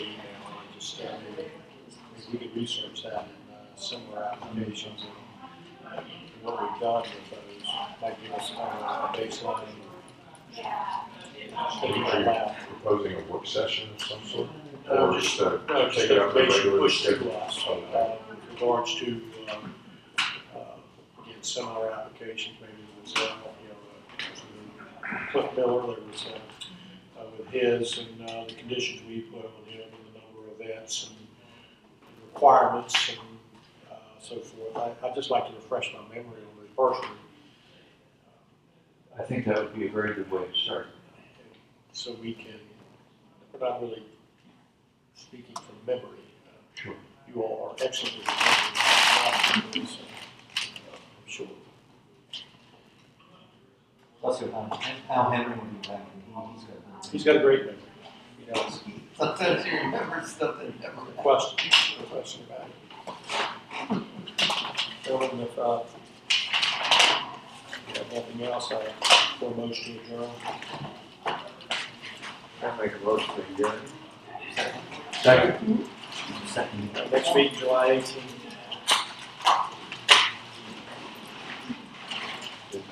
we could research that in uh, similar applications. and uh, What we've done with those might give us kind of a baseline. Are proposing a work session of some sort? Uh, Or just uh, No, take just it out the information regular pushed schedule? to us, Okay. uh, with regards to, um, uh, again, similar applications, maybe it was, uh, you know, uh, Cliff Miller, there was, uh, uh, with his and, uh, the conditions we put on him and the number of events and requirements and, uh, so forth. I, I'd just like to refresh my memory on it personally. I think that would be a very good way to start. so we can, we're not really speaking from memory. Sure. You all are excellent with memory, not memory, so, uh, I'm sure. Plus, Al Al Henry will be back, and he- he's got. He's got a great memory. You know, sometimes he remembers stuff that never happened. Question, no question about it. Gentlemen, if, uh, you have nothing else, I for a motion to adjourn. I make a motion to adjourn. Second. Uh, Next meeting, July eighteenth.